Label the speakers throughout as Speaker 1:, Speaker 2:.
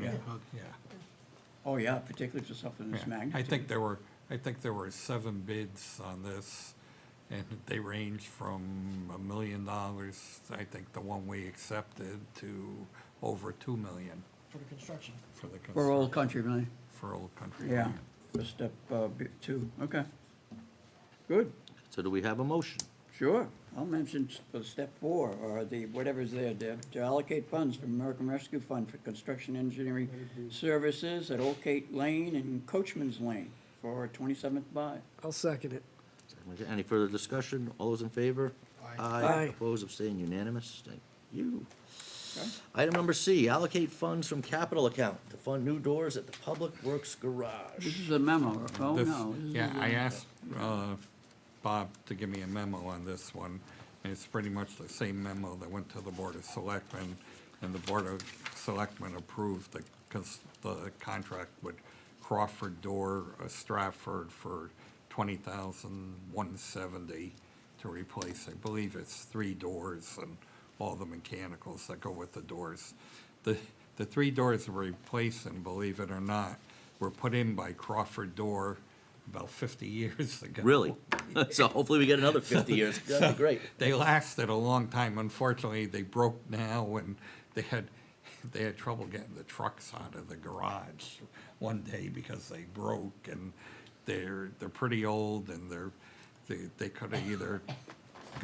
Speaker 1: Well, yeah.
Speaker 2: Oh, yeah, particularly for something this
Speaker 1: yeah. I
Speaker 2: magnitude.
Speaker 1: think there were, I think there were seven bids on this, and they ranged from a million dollars, I think the one we accepted, to over two million
Speaker 3: for the construction.
Speaker 1: for the, cons-
Speaker 2: For Old Country Lane,
Speaker 1: for Old Country.
Speaker 2: yeah,
Speaker 1: Lane.
Speaker 2: for step uh, b- two, okay. Good,
Speaker 4: So do we have a motion?
Speaker 2: sure. I'll mention s- for step four, or the, whatever's there, Deb, to allocate funds from American Rescue Fund for construction engineering services at Old Kate Lane and Coachman's Lane for twenty-seventh buy.
Speaker 3: I'll second it.
Speaker 4: Any further discussion? All those in favor?
Speaker 3: Aye.
Speaker 4: Opposed, abstained, unanimous? Thank you.
Speaker 2: Okay.
Speaker 4: Item number C, allocate funds from capital account to fund new doors at the Public Works Garage.
Speaker 2: This is a memo, oh,
Speaker 1: This-
Speaker 2: no. this is
Speaker 1: Yeah,
Speaker 2: a-
Speaker 1: I asked uh, Bob to give me a memo on this one, and it's pretty much the same memo that went to the Board of Selectmen, and the Board of Selectmen approved the, cons- the contract with Crawford Door uh, Stratford for twenty thousand one seventy to replace, I believe it's three doors and all the mechanicals that go with the doors. The, the three doors we're replacing, believe it or not, were put in by Crawford Door about fifty years ago.
Speaker 4: Really? So hopefully we get another fifty years. That'd be great.
Speaker 1: They lasted a long time. Unfortunately, they broke now and they had, they had trouble getting the trucks out of the garage one day because they broke and they're, they're pretty old and they're, they, they could have either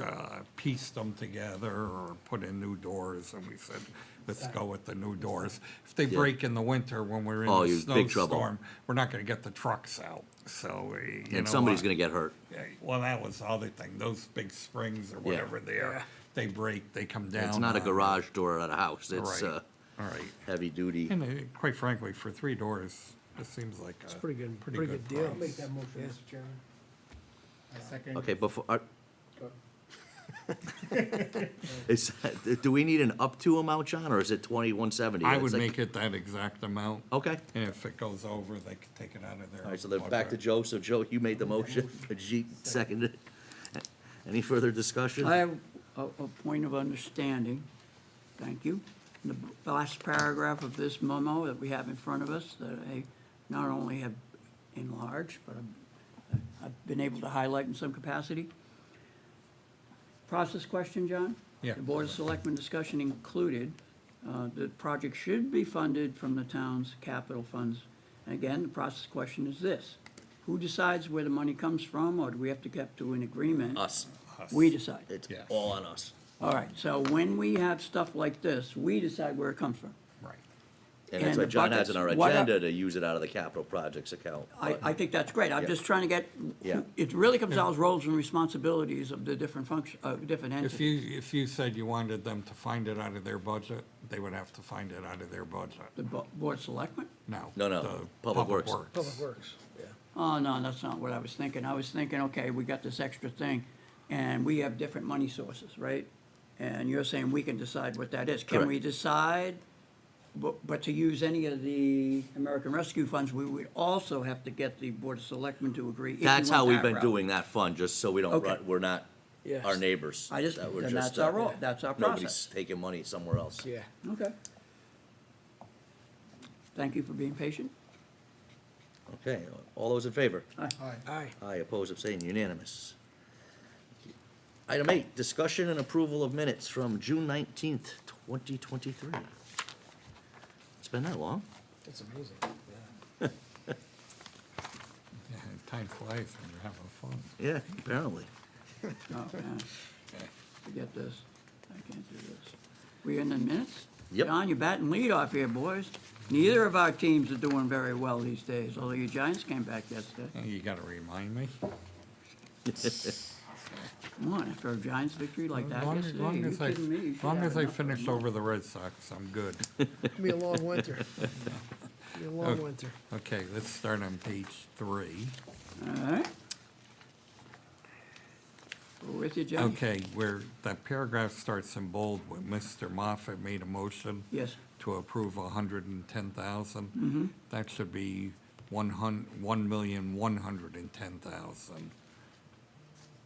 Speaker 1: uh, pieced them together or put in new doors and we said, let's go with the new doors. If they
Speaker 4: Yeah.
Speaker 1: break in the winter when we're in
Speaker 4: Oh,
Speaker 1: a
Speaker 4: you're in big trouble.
Speaker 1: snowstorm, we're not gonna get the trucks out, so, uh, you know.
Speaker 4: And somebody's
Speaker 1: what?
Speaker 4: gonna get hurt.
Speaker 1: Yeah, Well, that was the other thing, those big springs or whatever they are, they break, they come down.
Speaker 4: It's not a
Speaker 1: on-
Speaker 4: garage door at a house. It's,
Speaker 1: Right,
Speaker 4: uh,
Speaker 1: all right.
Speaker 4: heavy duty.
Speaker 1: And uh, quite frankly, for three doors, it seems like a.
Speaker 3: It's pretty good, pretty good deal.
Speaker 1: price.
Speaker 3: motion,
Speaker 5: Mr. Chairman. I second.
Speaker 4: Okay, before, are- is, do we need an up to amount, John, or is it twenty-one seventy?
Speaker 1: I would make it that exact amount.
Speaker 4: Okay.
Speaker 1: And if it goes over, they can take it out of there.
Speaker 4: All right, so then back to Joe. So Joe, you made the motion, Ajit seconded it. Any further discussion?
Speaker 2: I have a, a point of understanding, thank you. In the last paragraph of this memo that we have in front of us, that I not only have enlarged, but I've, I've been able to highlight in some capacity. Process question, John?
Speaker 1: Yeah.
Speaker 2: The Board of Selectmen discussion included, uh, the project should be funded from the town's capital funds. And again, the process question is this, who decides where the money comes from, or do we have to get to an agreement?
Speaker 4: Us.
Speaker 2: We decide.
Speaker 4: It's
Speaker 1: Yeah.
Speaker 4: all on us.
Speaker 2: All right, so when we have stuff like this, we decide where it comes from.
Speaker 1: Right.
Speaker 4: And that's
Speaker 2: And
Speaker 4: why
Speaker 2: the
Speaker 4: John has in our
Speaker 2: buckets, what are-
Speaker 4: agenda to use it out of the capital projects account.
Speaker 2: I, I think that's great, I'm
Speaker 4: Yeah.
Speaker 2: just trying to get,
Speaker 4: Yeah.
Speaker 2: it really comes down to roles and responsibilities of the different function, uh, different
Speaker 1: If
Speaker 2: entities.
Speaker 1: you, if you said you wanted them to find it out of their budget, they would have to find it out of their budget.
Speaker 2: The bo- board of selectmen?
Speaker 1: No.
Speaker 4: No, no,
Speaker 1: the
Speaker 4: Public Works.
Speaker 3: Public Works.
Speaker 2: Oh, no, that's not what I was thinking, I was thinking, okay, we got this extra thing, and we have different money sources, right? And you're saying we can decide what that is, can we
Speaker 4: Correct.
Speaker 2: decide? But, but to use any of the American Rescue Funds, we would also have to get the board of selectmen to agree. if we
Speaker 4: That's
Speaker 2: went
Speaker 4: how we've
Speaker 2: that
Speaker 4: been
Speaker 2: route.
Speaker 4: doing that fund, just so we don't
Speaker 2: Okay.
Speaker 4: run, we're not
Speaker 3: Yes.
Speaker 4: our neighbors.
Speaker 2: I just-
Speaker 4: that we're
Speaker 2: then
Speaker 4: just,
Speaker 2: that's our
Speaker 4: uh,
Speaker 2: role- that's our
Speaker 4: Nobody's
Speaker 2: process.
Speaker 4: taking money somewhere else.
Speaker 3: Yeah.
Speaker 2: Okay. Thank you for being patient.
Speaker 4: Okay, all those in favor?
Speaker 5: Aye.
Speaker 3: Aye.
Speaker 4: Aye, opposed, abstained, unanimous. Item eight, discussion and approval of minutes from June nineteenth, twenty twenty-three. It's been that long?
Speaker 3: That's amazing.
Speaker 1: Yeah, Time flies when you're having fun.
Speaker 4: Yeah, apparently.
Speaker 2: Oh, man. Forget this. I can't do this. We in the minutes?
Speaker 4: Yep.
Speaker 2: John, you're batting lead off here, boys. Neither of our teams are doing very well these days, although your Giants came back yesterday.
Speaker 1: Oh, You gotta remind me.
Speaker 2: Come on, after a Giants victory like that
Speaker 1: Long-
Speaker 2: yesterday,
Speaker 1: long
Speaker 2: you
Speaker 1: as I-
Speaker 2: kidding me? You should
Speaker 1: Long
Speaker 2: have
Speaker 1: as I
Speaker 2: enough of
Speaker 1: finish
Speaker 2: them.
Speaker 1: over the Red Sox, I'm good.
Speaker 3: It'll be a long winter. It'll be a long winter.
Speaker 1: Okay, let's start on page three.
Speaker 2: All right. We're with you, Johnny.
Speaker 1: Okay, where that paragraph starts in bold, where Mr. Moffat made a motion
Speaker 2: Yes.
Speaker 1: to approve a hundred and ten
Speaker 2: Mm-hmm.
Speaker 1: thousand. That should be one hun, one million, one hundred and ten thousand,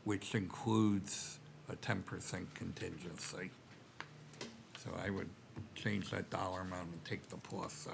Speaker 1: which includes a ten percent contingency. So I would change that dollar amount and take the plus